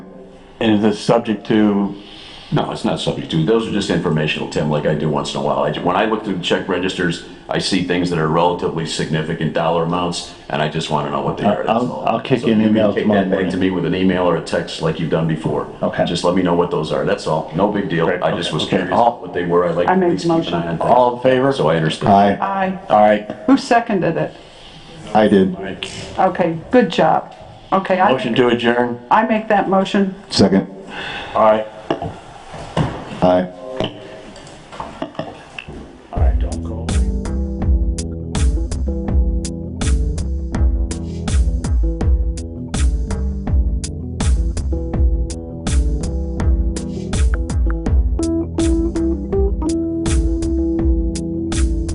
And is this subject to, No, it's not subject to, those are just informational, Tim, like I do once in a while. I, when I look through check registers, I see things that are relatively significant dollar amounts, and I just want to know what they are. that's I'll- all. I'll kick So you an you can email kick tomorrow that back To morning. me with an email or a text like you've done before. Okay. Just let me know what those are, that's all, no big deal. Great, I just okay, was okay. curious what they were, I like. I made to the keep an eye on things. all in favor? So I understand. Aye. Aye. All right, Who seconded it? I did. Okay, good job. Okay, I, Motion to adjourn? I make that motion. Second. All right. Aye.